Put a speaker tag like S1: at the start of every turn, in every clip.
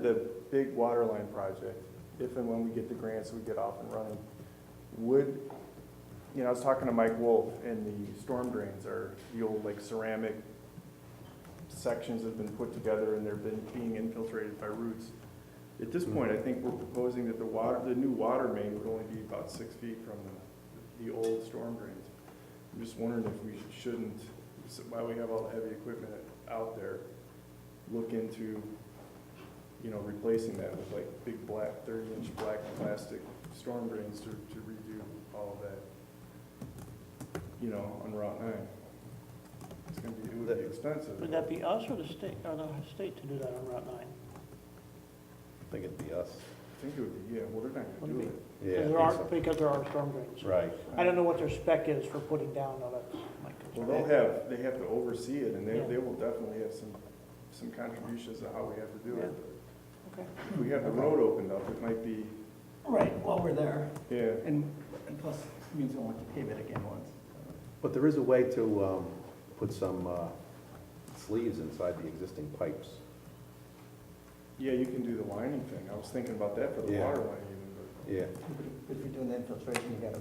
S1: the big water line project, if and when we get the grants, we get off and running, would, you know, I was talking to Mike Wolf, and the storm drains are the old like ceramic sections have been put together and they're been, being infiltrated by roots. At this point, I think we're proposing that the water, the new water main would only be about six feet from the, the old storm drains. I'm just wondering if we shouldn't, so while we have all the heavy equipment out there, look into, you know, replacing that with like big black, thirty-inch black plastic storm drains to, to redo all of that, you know, on Route nine. It's gonna be, it would be expensive.
S2: Would that be us or the state, or the state to do that on Route 9?
S3: I think it'd be us.
S1: I think it would be, yeah, well, they're not gonna do
S2: Wouldn't
S1: it.
S3: Yeah. I
S2: Because
S3: think
S2: there are,
S3: so.
S2: because there are storm drains.
S3: Right.
S2: I don't know what their spec is for putting down, though, that's my
S1: Well,
S2: concern.
S1: they'll have, they have to oversee it, and they,
S2: Yeah.
S1: they will definitely have some, some contributions to how we have to do it.
S2: Okay.
S1: If we have the road opened up, it might be,
S4: Right, while we're there,
S1: yeah,
S4: and, and plus, we don't want to pave it again once.
S3: But there is a way to um, put some uh, sleeves inside the existing pipes.
S1: yeah, you can do the lining thing, I was thinking about that for the
S3: Yeah.
S1: water line even, but.
S3: Yeah.
S4: But if you're doing the infiltration, you gotta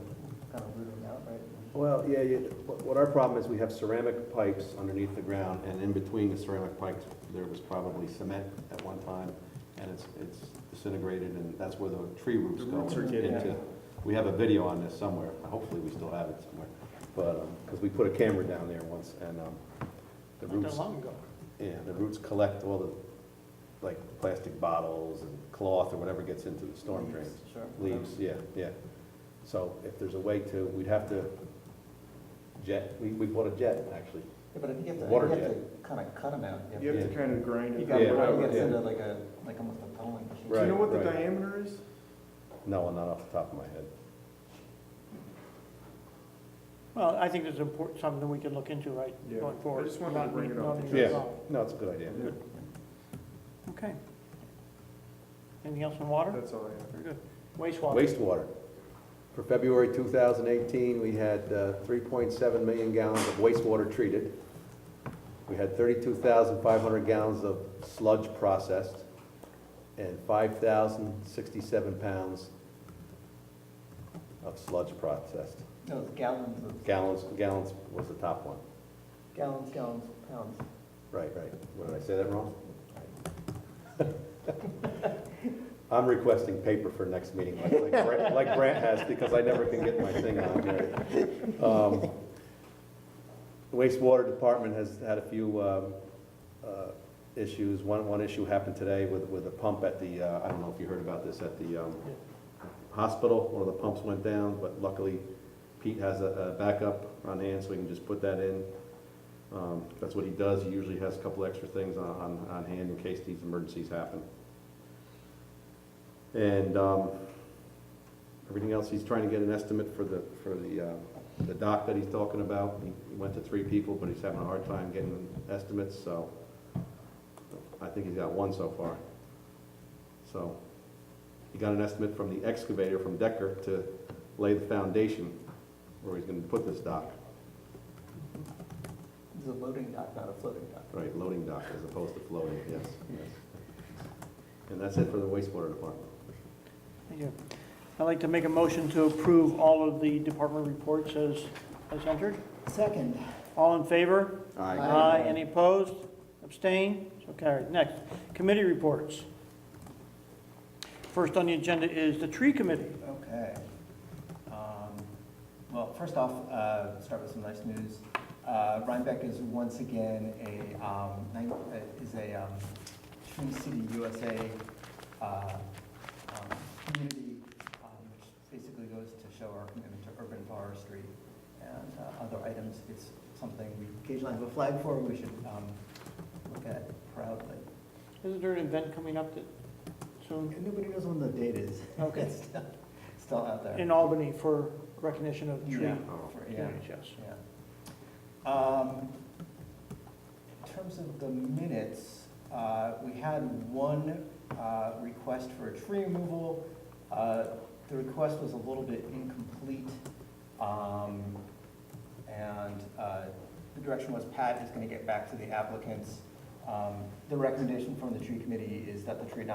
S4: kind of root them out, right?
S3: Well, yeah, yeah, what what our problem is, we have ceramic pipes underneath the ground, and in between the ceramic pipes, there was probably cement at one time, and it's, it's disintegrated, and that's where the tree roots
S1: The
S3: go
S1: roots are getting
S3: into.
S1: out.
S3: We have a video on this somewhere, hopefully we still have it somewhere, but, because we put a camera down there once, and um, the
S2: Not that
S3: roots,
S2: long ago.
S3: yeah, the roots collect all the, like, plastic bottles and cloth or whatever gets into the storm drains.
S4: Sure.
S3: Leaves, yeah, yeah. So if there's a way to, we'd have to jet, we, we bought a jet, actually.
S4: Yeah, but if you have to,
S3: Water
S4: you have
S3: jet.
S4: to kind of cut them out.
S1: You
S4: You
S1: have to kind of grind
S4: have-
S1: it.
S4: you
S1: down.
S4: gotta,
S3: Yeah,
S4: you
S3: right,
S4: gotta send
S3: yeah.
S4: it like a, like almost a tunneling machine.
S1: Do you know
S3: Right,
S1: what the
S3: right.
S1: diameter is?
S3: No, not off the top of my head.
S2: Well, I think it's important, something we can look into, right,
S1: Yeah.
S2: going forward.
S1: I just wanted to
S2: Not-
S1: bring it up
S2: not
S1: because-
S2: be
S3: Yeah.
S2: wrong.
S3: No, it's a good idea.
S2: Okay. Anything else on water?
S1: That's all I have.
S2: Very good. Wastewater.
S3: Wastewater. For February 2018, we had uh, 3.7 million gallons of wastewater treated. We had 32,500 gallons of sludge processed and 5,067 pounds of sludge processed.
S4: No, it's gallons of,
S3: Gallons, gallons was the top one.
S4: gallons, gallons, pounds.
S3: Right, right. What, did I say that wrong? I'm requesting paper for next meeting, like- like Brent- like Brant has, because I never can get my thing on here. Um, the Wastewater Department has had a few um, uh, issues. One, one issue happened today with, with a pump at the, uh, I don't know if you heard about this, at the um, hospital, one of the pumps went down, but luckily Pete has a a backup on hand, so we can just put that in. Um, That's what he does, he usually has a couple extra things on, on, on hand in case these emergencies happen. And, um, everything else, he's trying to get an estimate for the, for the, uh, the dock that he's talking about. He he went to three people, but he's having a hard time getting estimates, so I think he's got one so far. So, he got an estimate from the excavator from Decker to lay the foundation where he's gonna put this dock.
S4: It's a loading dock, not a floating dock.
S3: Right, loading dock as opposed to floating, yes, yes. And that's it for the wastewater department.
S2: Thank you. I'd like to make a motion to approve all of the department reports as, as entered.
S4: Second,
S2: All in favor?
S4: Aye.
S2: Aye. Any opposed? Abstain? So carried. Next, committee reports. First on the agenda is the tree committee.
S4: Okay. Um, Well, first off, uh, start with some nice news. Uh, Rhinebeck is once again a, um, nine- uh, is a um, Tree City USA uh, um, community, um, which basically goes to show our commitment to urban forestry and uh, other items. It's something we occasionally have a flag for, we should um, look at proudly.
S2: Isn't there an event coming up that, soon
S4: Nobody knows when the date is.
S2: Okay.
S4: It's still- Still out there.
S2: in Albany for recognition of tree
S4: Yeah,
S3: Oh.
S4: for- yeah.
S2: communities? Yes.
S4: Yeah. Um, In terms of the minutes, uh, we had one uh, request for a tree removal. Uh, The request was a little bit incomplete. um, And uh, the direction was Pat is going to get back to the applicants. Um, The recommendation from the tree committee is that the tree not